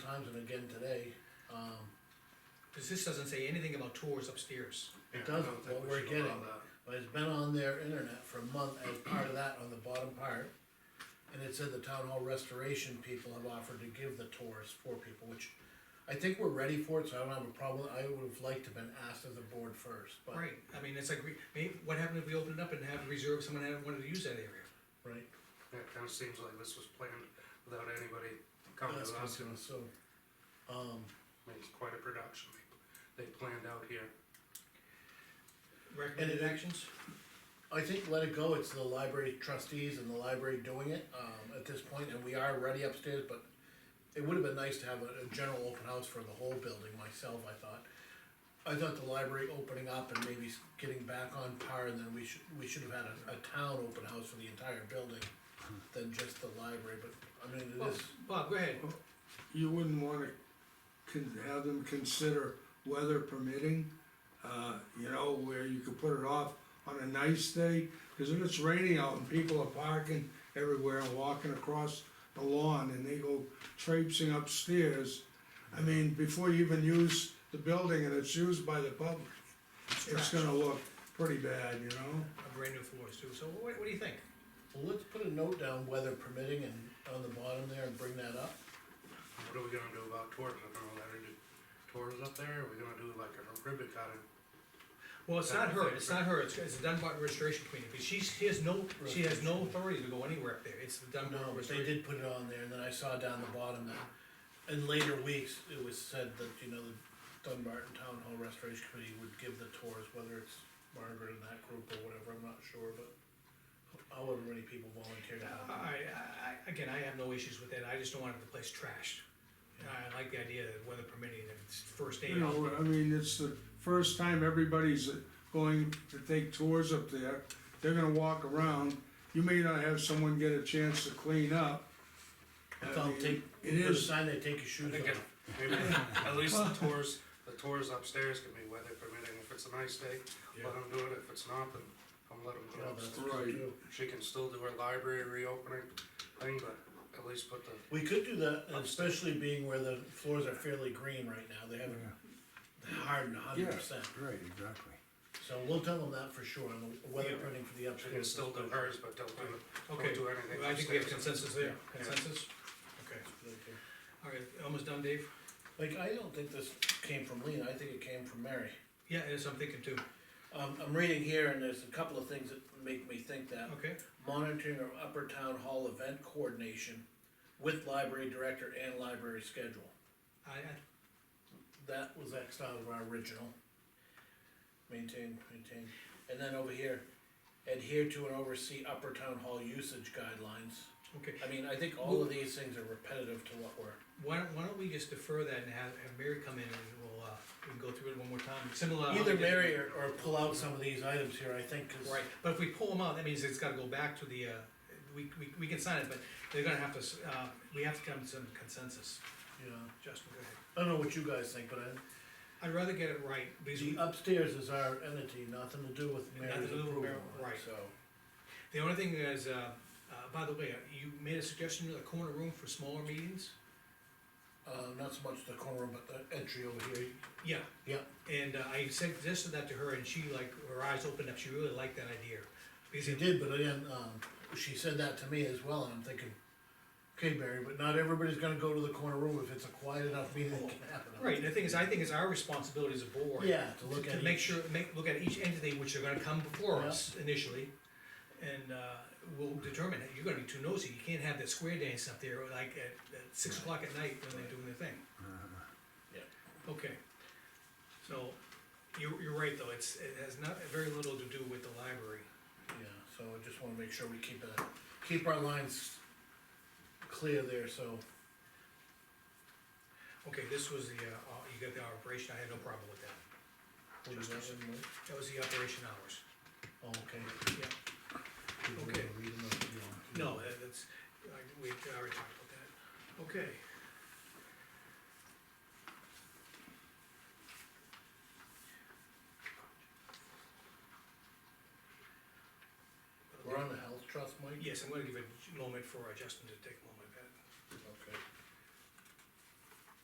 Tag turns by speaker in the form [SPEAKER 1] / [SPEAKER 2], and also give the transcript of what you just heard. [SPEAKER 1] times and again today, um,
[SPEAKER 2] Cause this doesn't say anything about tours upstairs.
[SPEAKER 1] It
[SPEAKER 3] Yeah, I
[SPEAKER 1] does,
[SPEAKER 3] don't think
[SPEAKER 1] what
[SPEAKER 3] we
[SPEAKER 1] we're
[SPEAKER 3] should allow
[SPEAKER 1] getting,
[SPEAKER 3] that.
[SPEAKER 1] but it's been on their internet for a month as part of that on the bottom part. And it said the town hall restoration people have offered to give the tours for people, which I think we're ready for it, so I don't have a problem, I would have liked to have been asked as a board first, but.
[SPEAKER 2] Right, I mean, it's like, we- maybe, what happened if we opened it up and have reserved, someone had wanted to use that area?
[SPEAKER 1] Right,
[SPEAKER 3] Yeah, it kinda seems like this was planned without anybody coming
[SPEAKER 1] that's
[SPEAKER 3] to
[SPEAKER 1] what I was
[SPEAKER 3] us, I
[SPEAKER 1] gonna assume. Um,
[SPEAKER 3] mean, it's quite a production they, they planned out here.
[SPEAKER 2] Recommended actions?
[SPEAKER 1] I think let it go, it's the library trustees and the library doing it, um, at this point, and we are ready upstairs, but it would have been nice to have a, a general open house for the whole building myself, I thought. I thought the library opening up and maybe s- getting back on par, and then we should, we should have had a, a town open house for the entire building than just the library, but, I mean, it
[SPEAKER 2] Bob,
[SPEAKER 1] is,
[SPEAKER 2] Bob, go ahead.
[SPEAKER 4] you wouldn't wanna con- have them consider weather permitting, uh, you know, where you could put it off on a nice day, cause if it's raining out and people are parking everywhere and walking across the lawn and they go traipsing upstairs, I mean, before you even use the building and it's used by the public, it's
[SPEAKER 2] trash.
[SPEAKER 4] gonna look pretty bad, you know?
[SPEAKER 2] A brand new floors too, so what, what do you think?
[SPEAKER 1] well, let's put a note down, weather permitting, and on the bottom there, and bring that up.
[SPEAKER 3] What are we gonna do about tours, I don't know, that are do tours up there, are we gonna do like a ribbon cutting?
[SPEAKER 2] Well, it's not her, it's not her, it's, it's the Dunbar Restoration Committee, because she's, she has no, she has no authority to go anywhere up there, it's the Dunbar
[SPEAKER 1] No, but they
[SPEAKER 2] Restoration.
[SPEAKER 1] did put it on there, and then I saw down the bottom that, in later weeks, it was said that, you know, the Dunbarton Town Hall Restoration Committee would give the tours, whether it's Margaret and that group or whatever, I'm not sure, but however many people volunteered. to help.
[SPEAKER 2] Alright, I, I, again, I have no issues with that, I just don't want the place trashed. And I like the idea that weather permitting, that it's first aid.
[SPEAKER 4] You know, I mean, it's the first time everybody's going to take tours up there. They're gonna walk around. You may not have someone get a chance to clean up. I
[SPEAKER 1] They'll
[SPEAKER 4] mean,
[SPEAKER 1] take,
[SPEAKER 4] It
[SPEAKER 1] put a
[SPEAKER 4] is,
[SPEAKER 1] sign, they take your shoes
[SPEAKER 3] I think
[SPEAKER 1] off.
[SPEAKER 3] it- maybe, at least the tours, the tours upstairs can be weather permitting, if it's a nice day, let them do it, if it's not, then I'm let them
[SPEAKER 1] You
[SPEAKER 3] go
[SPEAKER 1] know, that's
[SPEAKER 3] upstairs.
[SPEAKER 1] what you
[SPEAKER 4] Right.
[SPEAKER 1] do.
[SPEAKER 3] She can still do her library reopening thing, but at least put the,
[SPEAKER 1] We could do that, and especially being where the floors are fairly green right now, they haven't hardened a hundred percent.
[SPEAKER 5] Right, exactly.
[SPEAKER 1] So we'll tell them that for sure, and the weather
[SPEAKER 2] Yeah.
[SPEAKER 1] printing for the
[SPEAKER 3] she can
[SPEAKER 1] upstairs.
[SPEAKER 3] still do hers, but don't do,
[SPEAKER 2] Okay,
[SPEAKER 3] don't do anything.
[SPEAKER 2] I think we have
[SPEAKER 3] upstairs.
[SPEAKER 2] consensus there,
[SPEAKER 3] Yeah.
[SPEAKER 2] consensus? Okay,
[SPEAKER 1] Okay.
[SPEAKER 2] alright, almost done, Dave?
[SPEAKER 1] Like, I don't think this came from Lean, I think it came from Mary.
[SPEAKER 2] Yeah, that's what I'm thinking too,
[SPEAKER 1] Um, I'm reading here and there's a couple of things that make me think that.
[SPEAKER 2] okay?
[SPEAKER 1] Monitoring of upper town hall event coordination with library director and library schedule.
[SPEAKER 2] I, I,
[SPEAKER 1] That was Xed out of our original. Maintain, maintain. And then over here, adhere to and oversee upper town hall usage guidelines.
[SPEAKER 2] okay,
[SPEAKER 1] I mean, I think all of these things are repetitive to what we're.
[SPEAKER 2] why don't, why don't we just defer that and have, have Mary come in and we'll, uh, we can go through it one more time, similar. how we
[SPEAKER 1] Either
[SPEAKER 2] did-
[SPEAKER 1] Mary or, or pull out some of these items here, I think, cause.
[SPEAKER 2] Right, but if we pull them out, that means it's gotta go back to the, uh, we, we, we can sign it, but they're gonna have to, s- uh, we have to come to some consensus.
[SPEAKER 1] You know,
[SPEAKER 2] Justin, go ahead.
[SPEAKER 1] I don't know what you guys think, but I,
[SPEAKER 2] I'd rather get it right, because
[SPEAKER 1] The
[SPEAKER 2] we-
[SPEAKER 1] upstairs is our entity, nothing to do with
[SPEAKER 2] Nothing
[SPEAKER 1] Mary's
[SPEAKER 2] to do with
[SPEAKER 1] approval,
[SPEAKER 2] Mary, right.
[SPEAKER 1] so.
[SPEAKER 2] the only thing is, uh, uh, by the way, you made a suggestion to the corner room for smaller meetings?
[SPEAKER 1] Uh, not so much the corner, but the entry over here,
[SPEAKER 2] Yeah,
[SPEAKER 1] yeah,
[SPEAKER 2] and uh, I suggested that to her, and she like, her eyes opened up, she really liked that idea. Because
[SPEAKER 1] she
[SPEAKER 2] it-
[SPEAKER 1] did, but again, um, she said that to me as well, and I'm thinking, okay, Barry, but not everybody's gonna go to the corner room if it's a quiet enough meeting that can happen.
[SPEAKER 2] Right, and the thing is, I think it's our responsibility as a board.
[SPEAKER 1] Yeah, to look at
[SPEAKER 2] To make
[SPEAKER 1] each.
[SPEAKER 2] sure, make, look at each entity which are gonna come before
[SPEAKER 1] Yeah.
[SPEAKER 2] us initially. And, uh, we'll determine that you're gonna be too nosy, you can't have that square dance up there like at, at six o'clock at night when they're doing their thing.
[SPEAKER 1] Uh-huh. Yeah.
[SPEAKER 2] Okay, so, you're, you're right though, it's, it has not, very little to do with the library.
[SPEAKER 1] Yeah, so I just wanna make sure we keep it, keep our lines clear there, so,
[SPEAKER 2] Okay, this was the, uh, uh, you got the operation, I had no problem with that,
[SPEAKER 1] what is that, one more?
[SPEAKER 2] that was the operation hours,
[SPEAKER 1] oh, okay.
[SPEAKER 2] yeah.
[SPEAKER 1] People
[SPEAKER 2] Okay.
[SPEAKER 1] wanna read them or you want to-
[SPEAKER 2] No, that- that's, I- we already talked about that. Okay.
[SPEAKER 1] We're on the health trust, Mike?
[SPEAKER 2] Yes, I'm gonna give a moment for uh, Justin to take a moment.